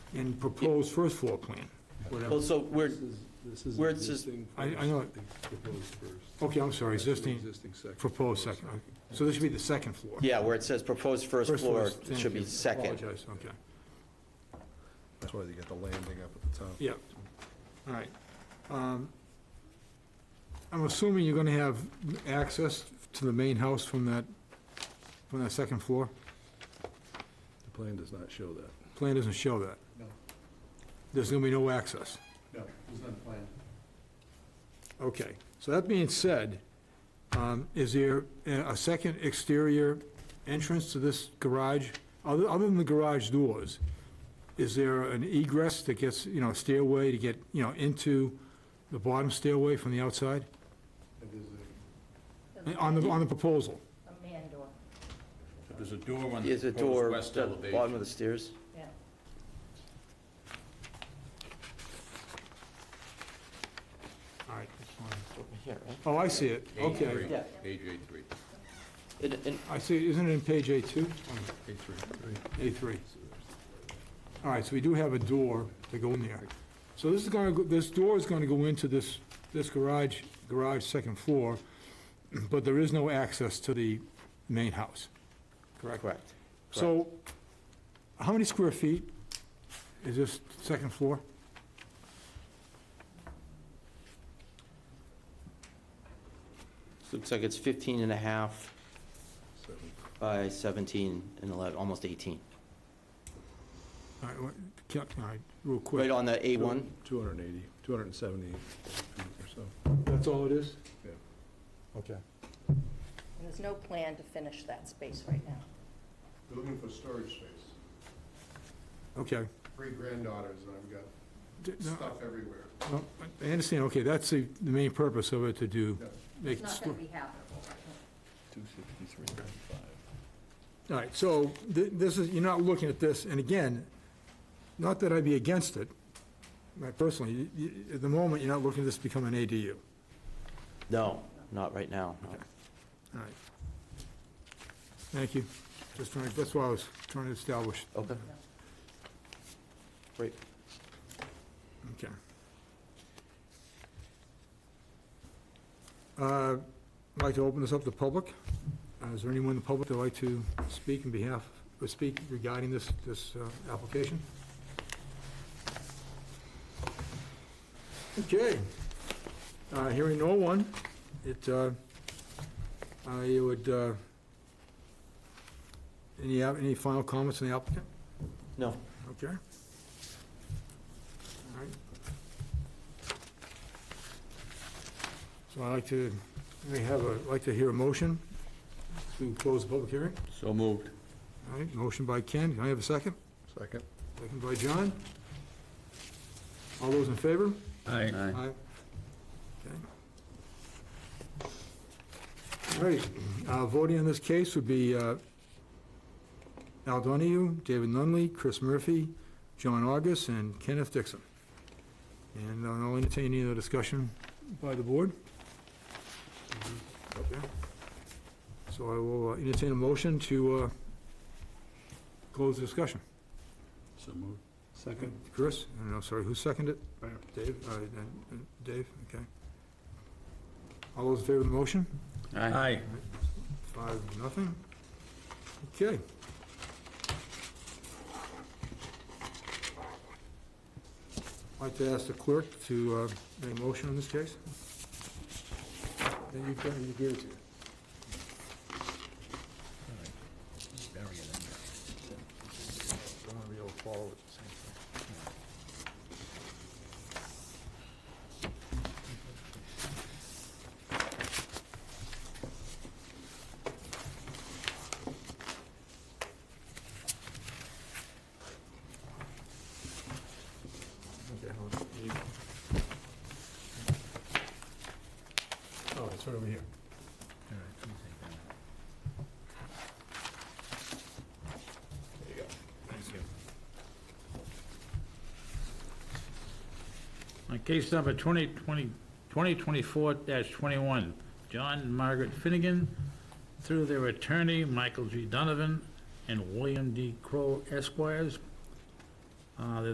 and proposed first floor plan, whatever. Well, so we're, This is Where it says- existing I- I first, know. the Proposed first. Okay, I'm sorry, That's the existing, Existing second. proposed second, so this should be the second floor. yeah, where it says proposed first floor, is- it thank should be you. second. Apologize, okay, That's why they got the landing up at the top. yeah, all right. Um, I'm assuming you're gonna have access to the main house from that, from that second floor? The plan does not show that. Plan doesn't show that. No. There's gonna be no access. No, there's not planned. Okay, so that being said, um, is there a a second exterior entrance to this garage? Other other than the garage doors, is there an egress that gets, you know, stairway to get, you know, into the bottom stairway from the outside? It is a- On the, on the proposal? A man door, There's a door on the Is a proposed door west at the bottom elevation. of the stairs? yeah. All right, that's fine. Over Here, right? Oh, I see it, Page okay. three, Yeah. Page A3, And, and I see, isn't it in page A2? A3. A3. All right, so we do have a door to go in there. So this is gonna, go this door is gonna go into this, this garage, garage second floor, but there is no access to the main house, correct? Correct. So, how many square feet is this second floor? Looks like it's 15 and a half Seven. by 17 and 11, almost 18. All right, what- can- all right, real Right quick. on the A1? 280, 270 feet or so. That's all it is? Yeah. Okay. And there's no plan to finish that space right now. They're looking for storage space. Okay. Three granddaughters, and I've got D- no, stuff everywhere. no, I understand, okay, that's the, the main purpose of it, to do, Yeah. make It's it... not stor- going to be habitable right now. All right, so th- this is, you're not looking at this, and again, not that I'd be against it, like, personally, you- you- at the moment, you're not looking at this to become an ADU. No, not right now, no. All right. Thank you. Just trying, that's what I was trying to establish. Okay. Great. Okay. Uh, I'd like to open this up to public. Uh, Is there anyone in the public that'd like to speak in behalf, or speak regarding this, this uh, application? Okay. Uh, Hearing no one, it, uh, I would, uh, any, any final comments on the applicant? No. Okay. All right. So I'd like to, we have a, I'd like to hear a motion to close the public hearing. So moved. All right, motion by Ken, can I have a second? Second? Second by John. All those in favor? Aye. Okay. All right, uh, voting on this case would be uh, Al Donahue, David Nunley, Chris Murphy, John August, and Kenneth Dixon. And I'll entertain any other discussion by the board. Okay. So I will uh, entertain a motion to uh, close the discussion. So moved. Second. Chris, and I'm sorry, who seconded Right. it? Dave, uh, and- and Dave, okay. All those in favor of the motion? Aye. Five, nothing. Okay. I'd like to ask the clerk to uh, make a motion on this case. Then you've got, you give it to you. I want to be able to follow it at the same time. Okay, hold on. You- Oh, it's right over here. There you go. Thank you. On case number 2020 2024-21, John and Margaret Finnegan, through their attorney, Michael G. Donovan, and William D. Crowe Esquires, uh,